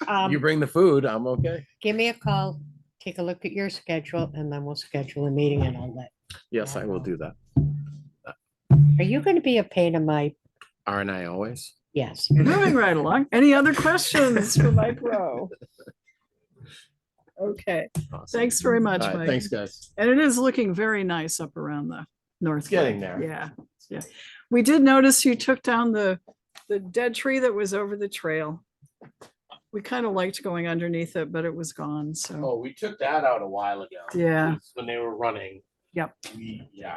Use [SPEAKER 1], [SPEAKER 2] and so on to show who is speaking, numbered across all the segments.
[SPEAKER 1] You
[SPEAKER 2] Um,
[SPEAKER 1] bring the food, I'm okay.
[SPEAKER 2] give me a call, take a look at your schedule and then we'll schedule a meeting and I'll let.
[SPEAKER 1] Yes, I will do that.
[SPEAKER 2] Are you going to be a pain in my,
[SPEAKER 1] Aren't I always?
[SPEAKER 2] yes,
[SPEAKER 3] Moving right along. Any other questions for Mike Rowe? Okay,
[SPEAKER 1] Awesome.
[SPEAKER 3] thanks very much,
[SPEAKER 1] All right,
[SPEAKER 3] Mike.
[SPEAKER 1] Thanks, guys.
[SPEAKER 3] And it is looking very nice up around the north.
[SPEAKER 1] It's getting
[SPEAKER 3] gate.
[SPEAKER 1] there.
[SPEAKER 3] Yeah, yeah. We did notice you took down the, the dead tree that was over the trail. We kind of liked going underneath it, but it was gone, so,
[SPEAKER 4] Oh, we took that out a while ago.
[SPEAKER 3] yeah.
[SPEAKER 4] 'cause When they were running.
[SPEAKER 3] Yep.
[SPEAKER 4] We, yeah.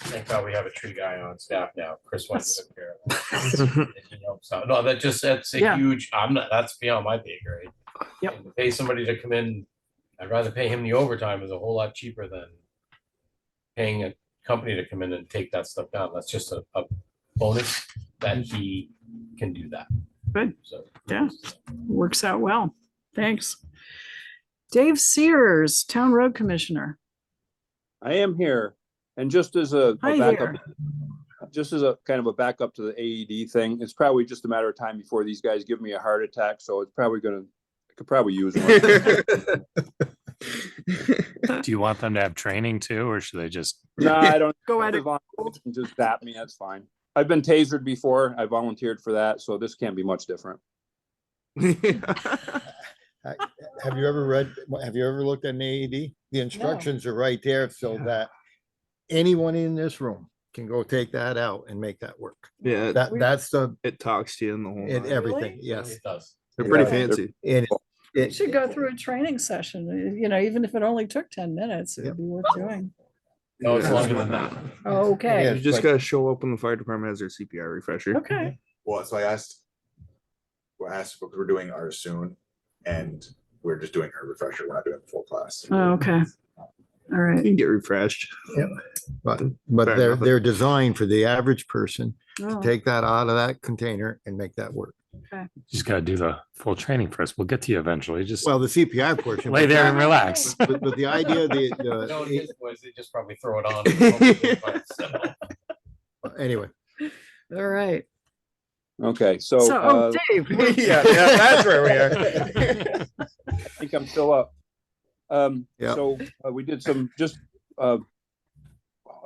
[SPEAKER 4] Thank God we have a tree guy on staff now. Chris went to took care of that. And he helps out. No, that just, that's
[SPEAKER 3] Yeah.
[SPEAKER 4] a huge, I'm not, that's beyond my pay grade.
[SPEAKER 3] Yep.
[SPEAKER 4] And to Pay somebody to come in, I'd rather pay him the overtime is a whole lot cheaper than paying a company to come in and take that stuff down. That's just a, a bonus that he can do that.
[SPEAKER 3] Good.
[SPEAKER 4] So.
[SPEAKER 3] Yeah. works out well. Thanks. Dave Sears, Town Road Commissioner.
[SPEAKER 5] I am here, and just as a,
[SPEAKER 3] Hi
[SPEAKER 5] a backup,
[SPEAKER 3] there.
[SPEAKER 5] just as a kind of a backup to the AED thing, it's probably just a matter of time before these guys give me a heart attack, so it's probably gonna, I could probably use one.
[SPEAKER 6] Do you want them to have training too, or should they just?
[SPEAKER 5] No, I don't,
[SPEAKER 3] Go at it.
[SPEAKER 5] if I'm- just zap me, that's fine. I've been tasered before, I volunteered for that, so this can't be much different.
[SPEAKER 7] Have you ever read, have you ever looked at an AED? The instructions are right there so that anyone in this room can go take that out and make that work.
[SPEAKER 8] Yeah, it-
[SPEAKER 7] That,
[SPEAKER 3] We-
[SPEAKER 7] that's the,
[SPEAKER 8] it talks to you in the whole.
[SPEAKER 7] it,
[SPEAKER 8] nine.
[SPEAKER 7] everything, yes.
[SPEAKER 4] It does.
[SPEAKER 8] They're pretty
[SPEAKER 7] Yeah.
[SPEAKER 8] fancy.
[SPEAKER 7] And it-
[SPEAKER 3] You Should go through a training session, you know, even if it only took ten minutes, it'd
[SPEAKER 7] Yep.
[SPEAKER 3] be worth doing.
[SPEAKER 4] No, it's
[SPEAKER 8] Yeah.
[SPEAKER 4] longer than that.
[SPEAKER 3] Okay,
[SPEAKER 7] Yeah.
[SPEAKER 8] You just
[SPEAKER 7] Like-
[SPEAKER 8] gotta show up when the fire department has their CPR refresher.
[SPEAKER 3] okay.
[SPEAKER 9] Well, so I asked, well, I asked because we're doing ours soon and we're just doing our refresher. We're not doing the full class.
[SPEAKER 3] Oh, okay. All
[SPEAKER 8] You
[SPEAKER 3] right.
[SPEAKER 8] can get refreshed.
[SPEAKER 7] But, but
[SPEAKER 8] Fair
[SPEAKER 7] they're,
[SPEAKER 8] enough.
[SPEAKER 7] they're designed for the average person to
[SPEAKER 3] Oh,
[SPEAKER 7] take that out of that container and make that work.
[SPEAKER 6] Just gotta do the full training first. We'll get to you eventually. Just
[SPEAKER 7] Well, the CPI portion.
[SPEAKER 6] lay
[SPEAKER 7] but
[SPEAKER 6] there and
[SPEAKER 7] that-
[SPEAKER 6] relax.
[SPEAKER 7] But, but the idea, the,
[SPEAKER 4] No,
[SPEAKER 7] uh,
[SPEAKER 4] it
[SPEAKER 7] it-
[SPEAKER 4] is, boys, they just probably throw it on. and hope it goes by itself.
[SPEAKER 7] anyway,
[SPEAKER 3] All right.
[SPEAKER 5] Okay, so,
[SPEAKER 3] So,
[SPEAKER 5] uh,
[SPEAKER 3] oh, Dave, we're-
[SPEAKER 8] Yeah, that's where we are.
[SPEAKER 5] I think I'm still up. Um,
[SPEAKER 7] Yeah.
[SPEAKER 5] so uh, we did some just, uh,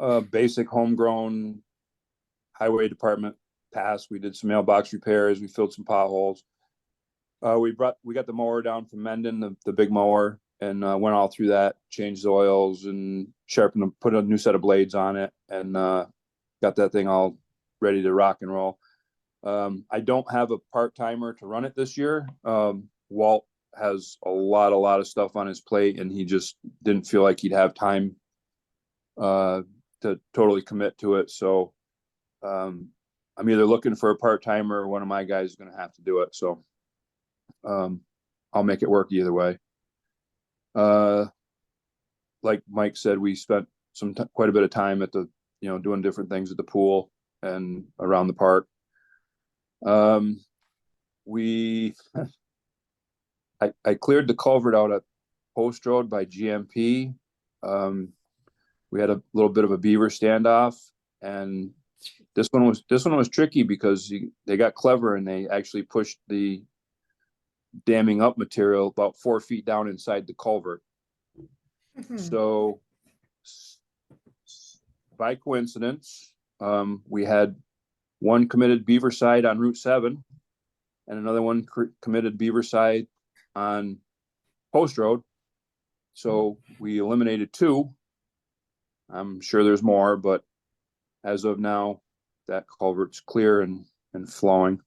[SPEAKER 5] uh, basic homegrown highway department pass. We did some mailbox repairs. We filled some potholes. Uh, we brought, we got the mower down from Mendon, the, the big mower and, uh, went all through that, changed the oils and sharpened them, put a new set of blades on it and, uh, got that thing all ready to rock and roll. Um, I don't have a part timer to run it this year. Um, Walt has a lot, a lot of stuff on his plate and he just didn't feel like he'd have time uh, to totally commit to it. So um, I'm either looking for a part timer or one of my guys is going to have to do it. So um, I'll make it work either way. Uh, like Mike said, we spent some, ti- quite a bit of time at the, you know, doing different things at the pool and around the park. Um, we I, I cleared the culvert out at Post Road by GMP. Um, we had a little bit of a beaver standoff and this one was, this one was tricky because you- they got clever and they actually pushed the damming up material about four feet down inside the culvert. So s- s- by coincidence, um, we had one committed beaver side on Route seven and another one cr- committed beaver side on Post Road. So we eliminated two. I'm sure there's more, but as of now, that culvert's clear and, and flowing.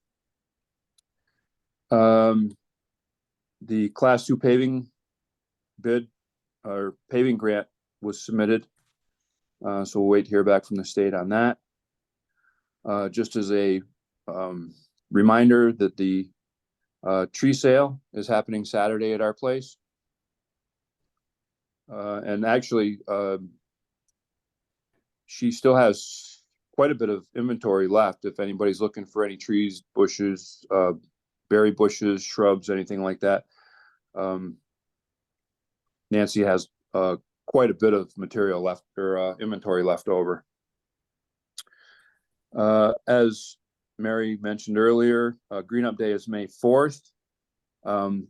[SPEAKER 5] Um, the class two paving bid or paving grant was submitted. Uh, so we'll wait to hear back from the state on that. Uh, just as a, um, reminder that the uh, tree sale is happening Saturday at our place. Uh, and actually, um, she still has quite a bit of inventory left. If anybody's looking for any trees, bushes, uh, berry bushes, shrubs, anything like that. Um, Nancy has, uh, quite a bit of material left or, uh, inventory left over. Uh, as Mary mentioned earlier, uh, Green Up Day is May fourth. Um,